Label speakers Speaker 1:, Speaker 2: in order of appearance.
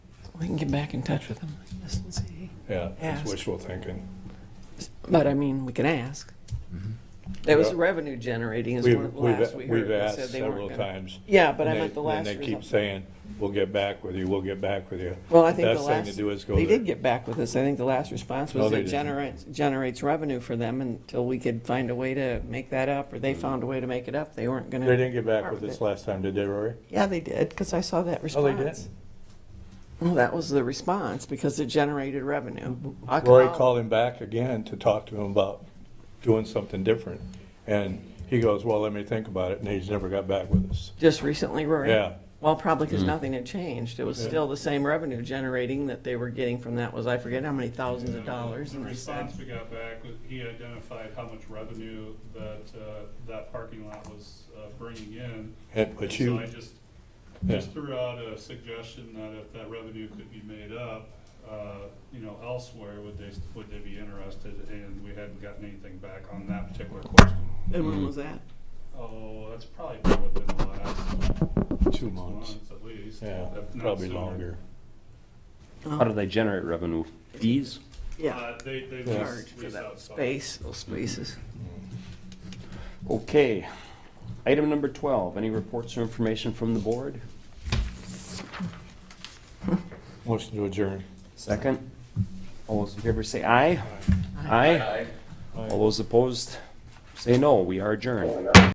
Speaker 1: We can get back in touch with them like this and see.
Speaker 2: Yeah,
Speaker 1: Ask.
Speaker 2: it's wishful thinking.
Speaker 1: But I mean, we can ask. That was
Speaker 2: Yeah.
Speaker 1: revenue generating is
Speaker 2: Mm-hmm. We've,
Speaker 1: one of the last we
Speaker 2: we've,
Speaker 1: heard.
Speaker 2: we've
Speaker 1: They
Speaker 2: asked
Speaker 1: said they weren't
Speaker 2: several
Speaker 1: gonna-
Speaker 2: times.
Speaker 1: Yeah, but I
Speaker 2: and they-
Speaker 1: meant the last.
Speaker 2: And they keep
Speaker 1: result.
Speaker 2: saying, we'll get back with you, we'll get back with you.
Speaker 1: Well, I think the
Speaker 2: Best thing
Speaker 1: last,
Speaker 2: to do is go
Speaker 1: they did
Speaker 2: there.
Speaker 1: get back with us. I think the last response
Speaker 2: No,
Speaker 1: was it
Speaker 2: they didn't.
Speaker 1: generates, generates revenue for them until we could find a way to make that up, or they found a way to make it up. They weren't gonna.
Speaker 2: Mm-hmm. They didn't get back with us last time, did they, Rory?
Speaker 1: Yeah, they did, because I saw that
Speaker 2: Oh,
Speaker 1: response.
Speaker 2: they did?
Speaker 1: Well, that was the response, because it generated revenue. I
Speaker 2: Rory called him back again to talk to him about doing something different. And he goes, well, let me think about it, and he's never got back with us.
Speaker 1: Just recently, Rory?
Speaker 2: Yeah.
Speaker 1: Well, probably because nothing had changed. It was
Speaker 2: Yeah.
Speaker 1: still the same revenue generating that they were getting from that was, I forget how many thousands of dollars.
Speaker 3: The
Speaker 1: And they said,
Speaker 3: response we got back, was he identified how much revenue that, uh, that parking lot was uh, bringing in.
Speaker 2: And, but you.
Speaker 3: So I just,
Speaker 2: Yeah.
Speaker 3: just threw out a suggestion that if that revenue could be made up, uh, you know, elsewhere, would they, would they be interested? And we hadn't gotten anything back on that particular question.
Speaker 1: and when was that?
Speaker 3: Oh, that's probably been within the last
Speaker 2: Two
Speaker 3: six
Speaker 2: months.
Speaker 3: months at least.
Speaker 2: Yeah,
Speaker 3: if not
Speaker 2: probably
Speaker 3: sooner.
Speaker 2: longer.
Speaker 4: How do they generate revenue? Fees?
Speaker 1: Oh, Yeah,
Speaker 3: Uh, They, they
Speaker 2: Yeah.
Speaker 1: charge
Speaker 3: lease
Speaker 1: for
Speaker 3: lease
Speaker 1: that
Speaker 3: out
Speaker 1: space, those spaces.
Speaker 4: Okay. Item number 12, any reports or information from the board?
Speaker 2: Motion to adjourn.
Speaker 4: Second. All those in favor say aye. Aye. All those opposed say no. We are adjourned.